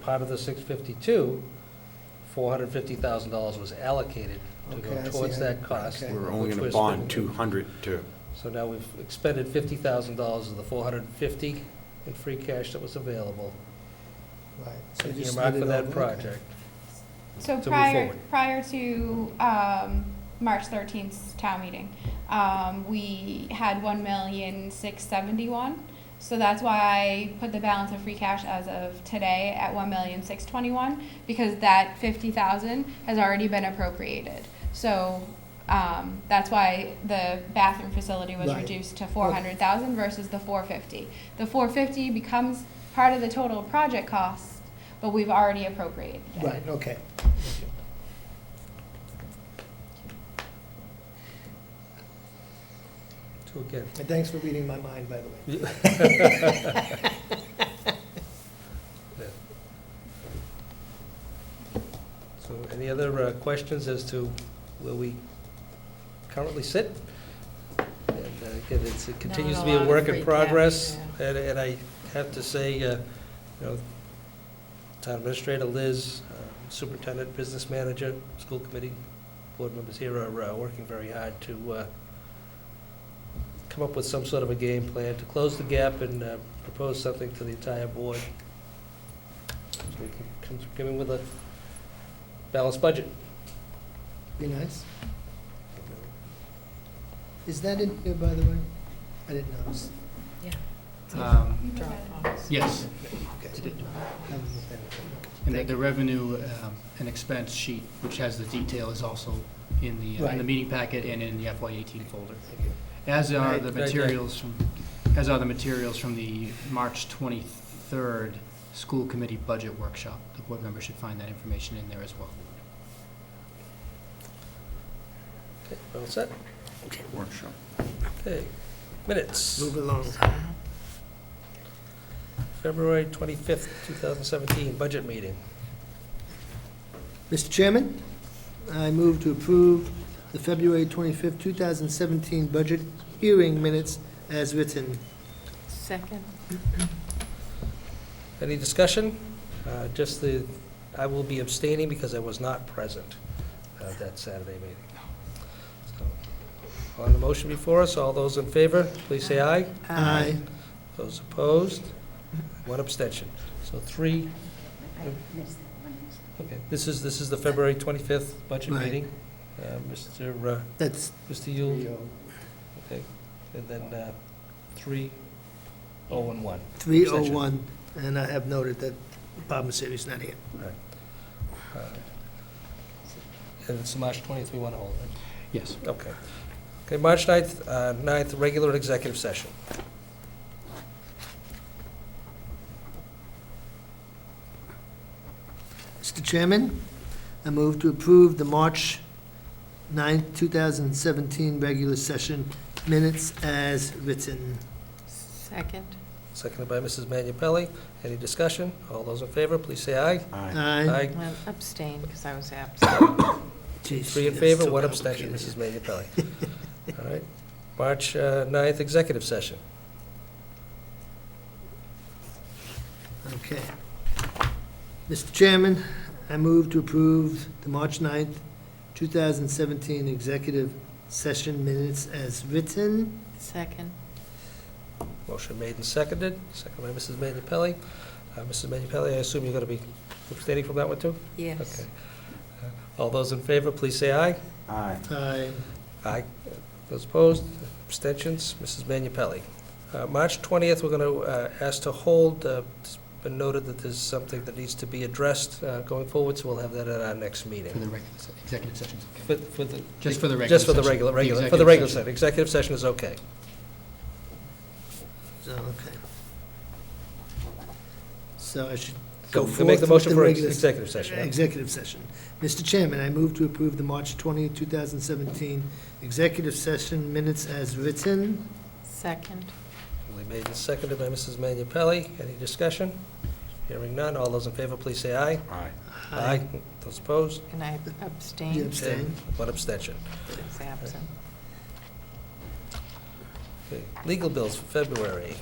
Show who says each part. Speaker 1: part of the six fifty-two, four hundred fifty thousand dollars was allocated to
Speaker 2: Okay, I
Speaker 1: go
Speaker 2: see.
Speaker 1: towards that cost.
Speaker 2: Okay.
Speaker 3: We're only
Speaker 1: which
Speaker 3: going to
Speaker 1: was-
Speaker 3: bond 200 to,
Speaker 1: So now we've expended fifty thousand dollars of the four hundred and fifty in free cash that was available,
Speaker 2: Right. So you just
Speaker 1: earmarked
Speaker 2: split
Speaker 1: for
Speaker 2: it
Speaker 1: that
Speaker 2: over, okay.
Speaker 1: project.
Speaker 4: So
Speaker 1: move
Speaker 4: prior,
Speaker 1: forward.
Speaker 4: prior to um, March 13th 's town meeting, um, we had 1,671. So that's why I put the balance of free cash as of today at 1,621 because that 50,000 has already been appropriated. So um, that's why the bathroom facility was
Speaker 2: Right.
Speaker 4: reduced to 400,000 versus the 450. The 450 becomes part of the total project cost, but we've already appropriated it.
Speaker 2: Right, okay.
Speaker 1: So again,
Speaker 2: And thanks for reading my mind, by the way.
Speaker 1: so any other uh, questions as to where we currently sit? And uh, again, it's, it continues to be
Speaker 5: Not
Speaker 1: a
Speaker 5: a
Speaker 1: work
Speaker 5: lot
Speaker 1: in
Speaker 5: of free
Speaker 1: progress,
Speaker 5: cash,
Speaker 1: and, and I have to say, uh, you know, town administrator Liz, uh, superintendent, business manager, school committee, board members here are uh, working very hard to uh, come up with some sort of a game plan to close the gap and uh, propose something to the entire board. So we can come- Come in with a balanced budget.
Speaker 2: Be nice. Is that in here, by the way? I didn't notice.
Speaker 6: Um,
Speaker 4: You
Speaker 5: Drop
Speaker 4: have it.
Speaker 5: box.
Speaker 6: Yes,
Speaker 2: Okay.
Speaker 6: it did.
Speaker 2: Haven't looked at it.
Speaker 6: and the- the revenue um, and expense sheet, which has the detail, is also in the, in the
Speaker 2: Right.
Speaker 6: meeting packet and in the FY eighteen folder.
Speaker 2: Thank you.
Speaker 6: As are
Speaker 1: Right,
Speaker 6: the
Speaker 1: right there.
Speaker 6: materials from, as are the materials from the March twenty-third school committee budget workshop. The board member should find that information in there as well.
Speaker 1: Okay, All set?
Speaker 3: okay, workshop.
Speaker 1: Okay. Minutes,
Speaker 2: Move along.
Speaker 1: February 25th, 2017, budget meeting.
Speaker 2: Mr. Chairman, I move to approve the February 25th, 2017 budget hearing minutes as written.
Speaker 5: Second.
Speaker 1: Any discussion? Uh, Just the, I will be abstaining because I was not present at that Saturday meeting. So, On the motion before us, all those in favor, please say aye.
Speaker 2: Aye.
Speaker 1: Those opposed? One abstention. So three. Okay, this is, this is the February 25th budget
Speaker 2: Right.
Speaker 1: meeting. Uh, Mr. uh,
Speaker 2: That's,
Speaker 1: Mr. Yule,
Speaker 2: oh.
Speaker 1: okay, and then uh, three, oh, and one.
Speaker 2: 301, and I have noted that Bob Messeri's not here.
Speaker 1: Uh, And it's March 20th, we want to hold it.
Speaker 6: Yes.
Speaker 1: Okay. Okay, March 9th, uh, 9th, regular executive session.
Speaker 2: Mr. Chairman, I move to approve the March 9th, 2017 regular session minutes as written.
Speaker 5: Second.
Speaker 1: Seconded by Mrs. Minipelli. Any discussion? All those in favor, please say aye.
Speaker 3: Aye.
Speaker 2: Aye.
Speaker 5: Well, abstain because I was absent.
Speaker 2: Jeez,
Speaker 1: Three in
Speaker 2: that's
Speaker 1: favor,
Speaker 2: so
Speaker 1: one abstention,
Speaker 2: complicated.
Speaker 1: Mrs. Minipelli. All right. March uh, 9th, executive session.
Speaker 2: Okay. Mr. Chairman, I move to approve the March 9th, 2017 executive session minutes as written.
Speaker 5: Second.
Speaker 1: Motion made and seconded, seconded by Mrs. Minipelli. Uh, Mrs. Minipelli, I assume you're going to be abstaining from that one, too?
Speaker 5: Yes.
Speaker 1: Okay. Uh, All those in favor, please say aye.
Speaker 3: Aye.
Speaker 2: Aye.
Speaker 1: Aye. Those opposed, abstentions, Mrs. Minipelli. Uh, March 20th, we're going to ask to hold, Uh, it's been noted that there's something that needs to be addressed uh, going forward, so we'll have that at our next
Speaker 6: For
Speaker 1: meeting.
Speaker 6: the regular, se- executive sessions, okay.
Speaker 1: For- for the-
Speaker 6: Just for the regular
Speaker 1: Just for the
Speaker 6: session.
Speaker 1: regular,
Speaker 6: The
Speaker 1: regular, for the
Speaker 6: executive
Speaker 1: regular
Speaker 6: session.
Speaker 1: session, executive session is okay.
Speaker 2: So, okay. So I should
Speaker 1: So
Speaker 2: go
Speaker 1: we
Speaker 2: forth
Speaker 1: can make the
Speaker 2: with
Speaker 1: motion for ex-
Speaker 2: regular-
Speaker 1: executive session, yeah.
Speaker 2: Executive session. Mr. Chairman, I move to approve the March 20th, 2017 executive session minutes as written.
Speaker 5: Second.
Speaker 1: Duly made and seconded by Mrs. Minipelli. Any discussion? Hearing none. All those in favor, please say aye.
Speaker 3: Aye.
Speaker 1: Those opposed?
Speaker 5: And I
Speaker 2: You
Speaker 5: abstained.
Speaker 2: abstain?
Speaker 1: And One abstention.
Speaker 5: I was absent.
Speaker 1: Okay. Legal bills for February.